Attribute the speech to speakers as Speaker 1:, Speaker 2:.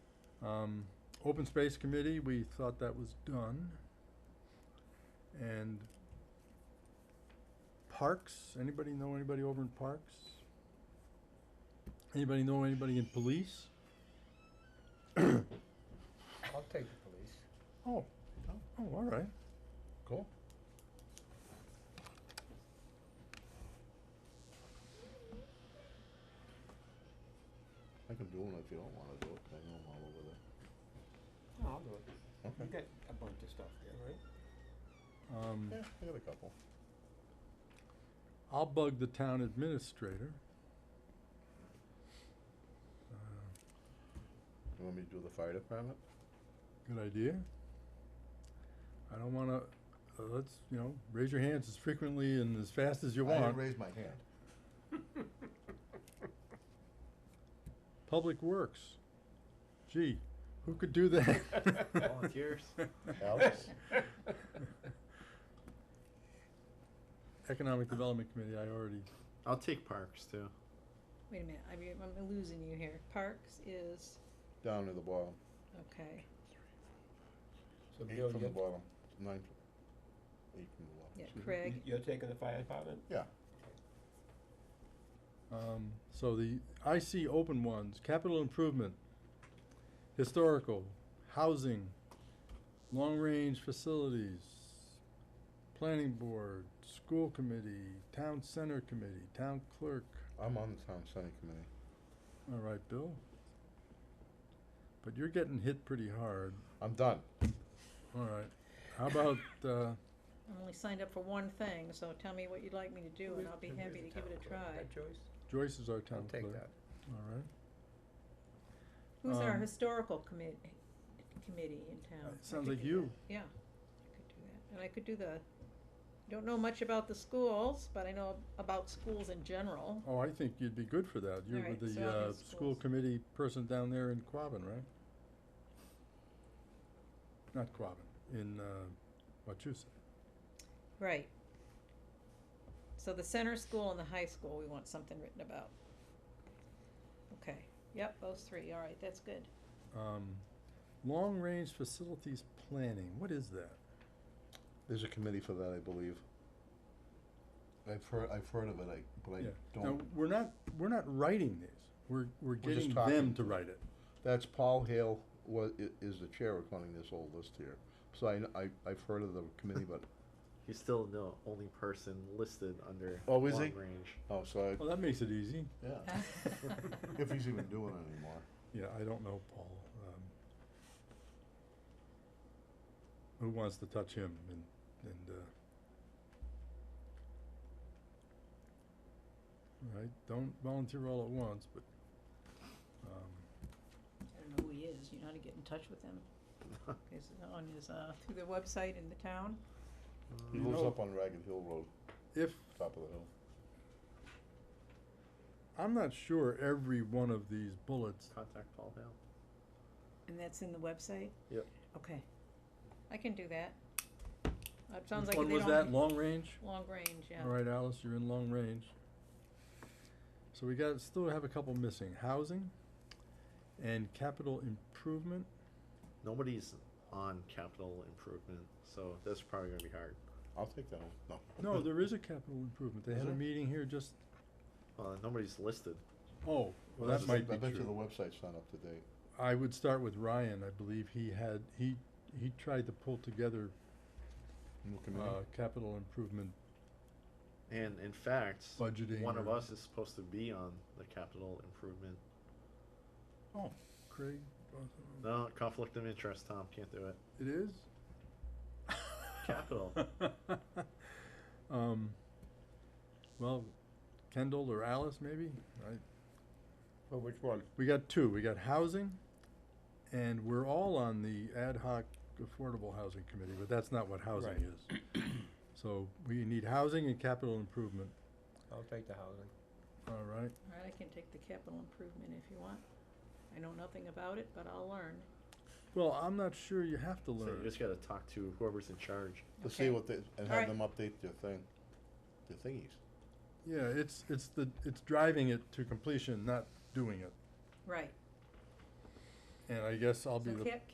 Speaker 1: Um, open space committee, we thought that was done. And parks, anybody know anybody over in parks? Anybody know anybody in police?
Speaker 2: I'll take the police.
Speaker 1: Oh, oh, all right,
Speaker 2: Cool.
Speaker 3: I can do it if you don't wanna do it, 'cause I know I'm all over there.
Speaker 2: No, I'll do it. You
Speaker 3: Okay.
Speaker 2: got a bunch of stuff there, right?
Speaker 1: um,
Speaker 3: Yeah, I got a couple.
Speaker 1: I'll bug the town administrator. Uh,
Speaker 3: You want me to do the fire department?
Speaker 1: Good idea. I don't wanna, uh, let's, you know, raise your hands as frequently and as fast as you
Speaker 3: I
Speaker 1: want.
Speaker 3: didn't raise my hand.
Speaker 1: Public Works. Gee, who could do that?
Speaker 4: Volunteers.
Speaker 3: Alex?
Speaker 1: Economic Development Committee, I already,
Speaker 4: I'll take parks too.
Speaker 5: Wait a minute, I mean, I'm losing you here. Parks is,
Speaker 3: Down to the bottom,
Speaker 5: okay,
Speaker 2: So
Speaker 3: eight
Speaker 2: Bill,
Speaker 3: from the
Speaker 2: you're,
Speaker 3: bottom, nine from, eight from the bottom.
Speaker 5: yeah,
Speaker 3: excuse me.
Speaker 5: Craig,
Speaker 2: you're taking the fire department?
Speaker 3: Yeah,
Speaker 1: um, so the IC open ones, capital improvement, historical, housing, long-range facilities, planning board, school committee, town center committee, town clerk.
Speaker 3: I'm on the town center committee.
Speaker 1: All right, Bill? But you're getting hit pretty hard.
Speaker 3: I'm done.
Speaker 1: All right. How about, uh,
Speaker 5: I'm only signed up for one thing, so tell me what you'd like me to do and I'll be happy to give it a try.
Speaker 2: That choice?
Speaker 1: Joyce is our
Speaker 2: I'll
Speaker 1: town clerk.
Speaker 2: take that.
Speaker 1: All right.
Speaker 5: Who's our
Speaker 1: Um,
Speaker 5: historical commit, committee in town? I
Speaker 1: Sounds
Speaker 5: could
Speaker 1: like
Speaker 5: do that.
Speaker 1: you.
Speaker 5: Yeah, I could do that, and I could do the, don't know much about the schools, but I know about schools in general.
Speaker 1: Oh, I think you'd be good for that. You're
Speaker 5: Alright,
Speaker 1: with
Speaker 5: so
Speaker 1: the,
Speaker 5: I'll do
Speaker 1: uh, school
Speaker 5: schools.
Speaker 1: committee person down there in Quabbin, right? Not Quabbin, in, uh, Wachusett.
Speaker 5: Right. So the center school and the high school, we want something written about. Okay, yep, those three, all right, that's good.
Speaker 1: Um, long-range facilities planning, what is that?
Speaker 3: There's a committee for that, I believe. I've heard, I've heard of it, I, but I
Speaker 1: Yeah. Now,
Speaker 3: don't,
Speaker 1: we're not, we're not writing these. We're, we're
Speaker 3: just
Speaker 1: getting them
Speaker 3: talking.
Speaker 1: to write it.
Speaker 3: that's Paul Hale wa- i- is the chair according to this old list here. So I, kn- I, I've heard of the committee, but,
Speaker 4: He's still the only person listed under
Speaker 3: Oh, is
Speaker 4: long
Speaker 3: he?
Speaker 4: range.
Speaker 3: oh, so
Speaker 1: Well, that makes it easy.
Speaker 3: I, yeah, if he's even doing it anymore.
Speaker 1: Yeah, I don't know, Paul. Um, who wants to touch him and, and, uh, right, don't volunteer all at once, but, um,
Speaker 5: I don't know who he is, you know how to get in touch with him? Is it on his, uh, through the website in the town?
Speaker 3: He
Speaker 1: You
Speaker 3: lives
Speaker 1: know-
Speaker 3: up on Ragged Hill Road,
Speaker 1: if,
Speaker 3: top of the hill.
Speaker 1: I'm not sure every one of these bullets,
Speaker 4: Contact Paul Hale.
Speaker 5: And that's in the website?
Speaker 4: Yep.
Speaker 5: Okay. I can do that. It sounds
Speaker 1: which
Speaker 5: like
Speaker 1: one
Speaker 5: they
Speaker 1: was that,
Speaker 5: don't.
Speaker 1: long range?
Speaker 5: Long range, yeah.
Speaker 1: All right, Alice, you're in long range. So we got, still have a couple missing, housing and capital improvement.
Speaker 4: Nobody's on capital improvement, so that's probably gonna be hard.
Speaker 3: I'll take that one, no.
Speaker 1: No, there is a capital improvement. They
Speaker 3: Is
Speaker 1: had a
Speaker 3: there?
Speaker 1: meeting here just,
Speaker 4: Uh, nobody's listed.
Speaker 1: oh, well,
Speaker 3: I
Speaker 1: that
Speaker 3: bet-
Speaker 1: might be
Speaker 3: I bet you the
Speaker 1: true.
Speaker 3: website's not up to date.
Speaker 1: I would start with Ryan. I believe he had, he, he tried to pull together,
Speaker 3: New
Speaker 1: uh,
Speaker 3: committee?
Speaker 1: capital improvement
Speaker 4: And in fact,
Speaker 1: budgeting.
Speaker 4: one of
Speaker 1: or-
Speaker 4: us is supposed to be on the capital improvement.
Speaker 1: Oh, Craig, uh,
Speaker 4: No, conflict of interest, Tom, can't do it.
Speaker 1: it is?
Speaker 4: Capital.
Speaker 1: Um, well, Kendall or Alice maybe? I,
Speaker 2: Well, Oh, which one?
Speaker 1: we got two. We got housing and we're all on the ad hoc affordable housing committee, but that's not what housing
Speaker 2: Right.
Speaker 1: is. So we need housing and capital improvement.
Speaker 2: I'll take the housing.
Speaker 1: All right,
Speaker 5: All right, I can take the capital improvement if you want. I know nothing about it, but I'll learn.
Speaker 1: well, I'm not sure you have to
Speaker 4: So you
Speaker 1: learn.
Speaker 4: just gotta talk to whoever's in charge.
Speaker 3: To see
Speaker 5: Okay.
Speaker 3: what they, and
Speaker 5: Alright.
Speaker 3: have them update their thing, their thingies.
Speaker 1: Yeah, it's, it's the, it's driving it to completion, not doing it.
Speaker 5: Right.
Speaker 1: and I guess I'll be
Speaker 5: So
Speaker 1: the
Speaker 5: cap-